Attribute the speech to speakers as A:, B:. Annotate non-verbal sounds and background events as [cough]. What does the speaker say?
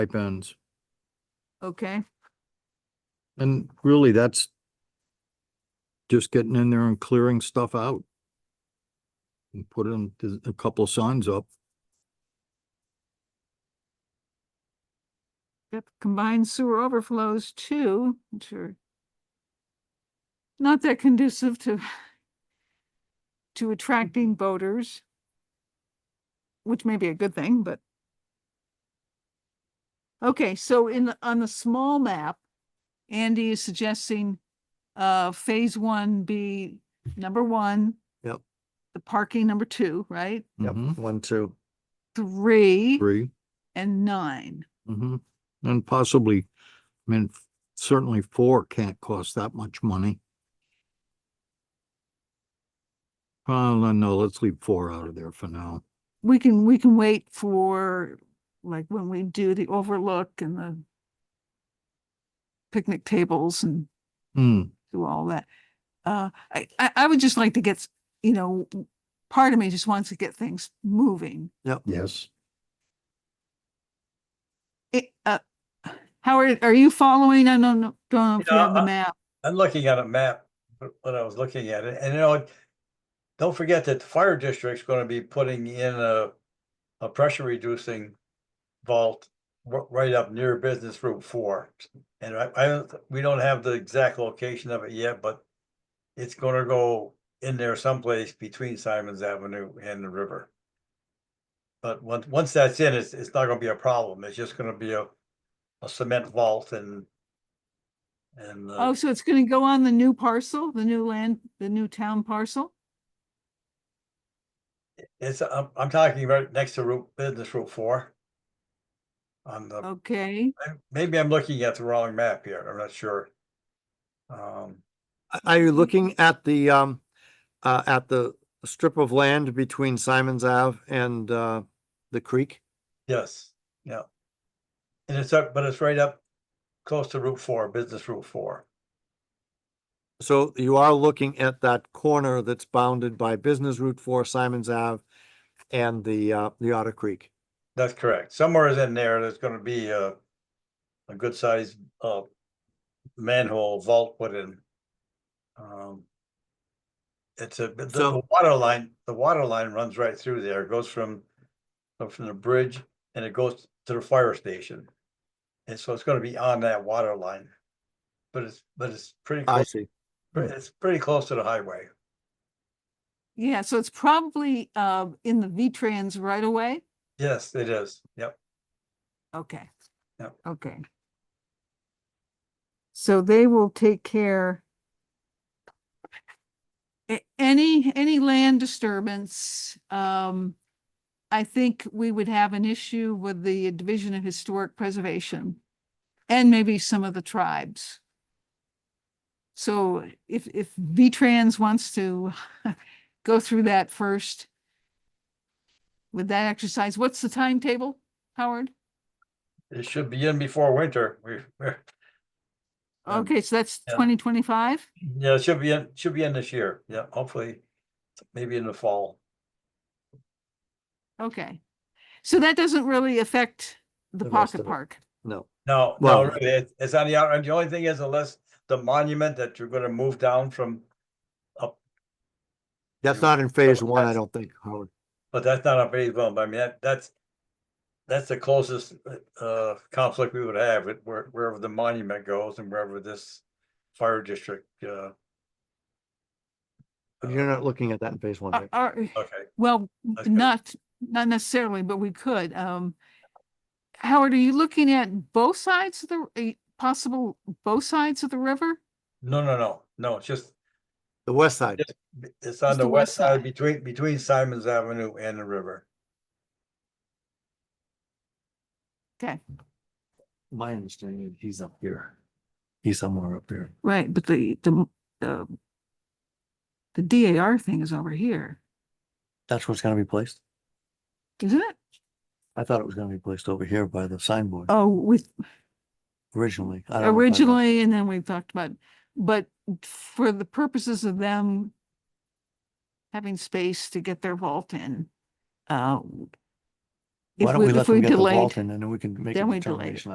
A: stipends.
B: Okay,
A: And really, that's just getting in there and clearing stuff out. And putting th- a couple of signs up.
B: yep, combined sewer overflows too, which are not that conducive to to attracting boaters, which may be a good thing, but okay, so in, the- on the small map, Andy is suggesting uh, phase one be number one.
C: Yep.
B: The parking number two, right?
C: Yep,
A: Mhm.
C: one, two.
B: Three
A: 3
B: and nine.
A: Mm-hmm. And possibly, I mean, f- certainly four can't cost that much money. Uh, no, no, let's leave four out of there for now.
B: we can, we can wait for, like, when we do the overlook and the picnic tables and
A: Hmm,
B: do all that. Uh, I, I, I would just like to get, s- you know, w- part of me just wants to get things moving.
C: Yep.
A: yes.
B: It, uh, Howard, are you following? I don't know, don't know if you
D: Yeah,
B: have the
D: I-
B: map.
D: I'm looking at a map, but when I was looking at it, and you know, don't forget that the fire district's gonna be putting in a, a pressure reducing vault r- right up near Business Route Four. And I, I, don't- we don't have the exact location of it yet, but it's gonna go in there someplace between Simon's Avenue and the river. But once, once that's in, it's, it's not gonna be a problem. It's just gonna be a, a cement vault and and. uh,
B: Oh, so it's gonna go on the new parcel, the new land, the new town parcel?
D: It's, I'm, I'm talking right next to Route, Business Route Four. On
B: Oh.
D: the,
B: Okay,
D: I- maybe I'm looking at the wrong map here, I'm not sure. Um,
C: Are you looking at the, um, uh, at the strip of land between Simon's Ave and, uh, the creek?
D: yes, yeah. And it's up, but it's right up close to Route Four, Business Route Four.
C: So you are looking at that corner that's bounded by Business Route Four, Simon's Ave and the, uh, the Otter Creek.
D: That's correct, somewhere is in there, there's gonna be a, a good sized, uh, manhole vault put in. Um. It's a, but the the
C: So-
D: water line, the water line runs right through there, It goes from, uh, from the bridge and it goes to the fire station. And so it's gonna be on that water line. But it's, but it's pretty,
C: I
D: close.
C: see.
D: it's pretty close to the highway,
B: yeah, so it's probably, uh, in the V-Trans right away?
D: yes, it is, yep.
B: Okay.
D: Yep.
B: Okay. So they will take care. a- Any, any land disturbance, um, I think we would have an issue with the Division of Historic Preservation. And maybe some of the tribes. So if, if V-Trans wants to [laughs] go through that first. With that exercise, what's the timetable, Howard?
D: It should be in before winter, we, we're, Um,
B: Okay, so that's
D: yeah.
B: twenty twenty-five?
D: Yeah, it should be in, should be in this year. Yeah, hopefully, maybe in the fall.
B: Okay. So that doesn't really affect the
C: The rest
B: pocket
C: of it.
B: park.
C: No,
D: No, no,
C: Well-
D: really, it- it's on the out, and the only thing is unless the monument that you're gonna move down from,
C: that's not in phase
D: That's-
C: one, I don't think, Howard.
D: but that's not on phase one, but I mean, that, that's. That's the closest, uh, conflict we would have, it where, wherever the monument goes and wherever this fire district, uh,
C: You're not looking at that in phase one.
B: Are-
C: right?
B: are-
D: okay.
B: Uh, well,
D: That's good.
B: not, not necessarily, but we could, um. Howard, are you looking at both sides of the, eh, possible, both sides of the river?
D: No, no, no, no, it's just,
C: The west side.
D: it's on
B: Just
D: the west side between, between Simon's Avenue and the river.
C: My understanding, he's up here. He's somewhere up here.
B: Right, but the, the, the. The DAR thing is over here,
C: That's where it's gonna be placed?
B: isn't it?
C: I thought it was gonna be placed over here by the signboard
B: Oh, with,
C: originally. I don't know if I-
B: originally, and then we talked about, but for the purposes of them having space to get their vault in, uh, if
C: Why don't we let
B: if
C: them get the
B: delayed.
C: vault in and then we can make a
B: then we delay it.
C: determination